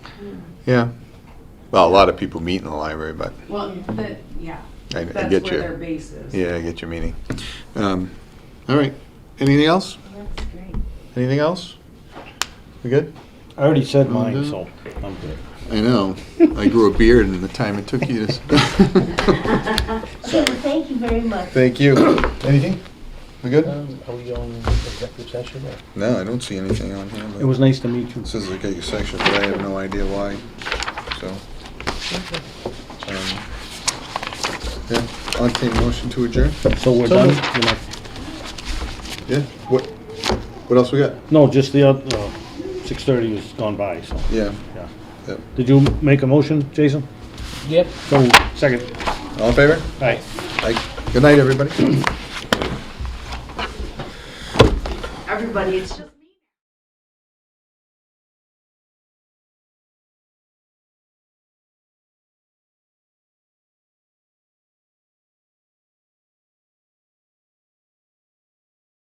Yeah. Well, a lot of people meet in the library, but Well, the, yeah, I, I that's get where their your, base is. yeah, I get your meaning. Um, all right. Anything else? That's great. Anything else? We good? I already said I'm mine, good. so I'm good. I know. I grew a beard in the time it took you to. s- Well, thank you very much. Thank you. Anything? We good? Um, Are we going executive session or? No, I don't see anything on here. but It was nice to meet you. This is like a section, but I have no idea why, so. um, Yeah, I'll take motion to adjourn. So we're So done? moved. You're not- Yeah, what, what else we got? No, just the, oth- uh, six thirty is gone by, so, Yeah, yeah. Yep. Did you make a motion, Jason? Yep. So, second, all in favor? aye. Aye. Good night, everybody. Everybody, it's just.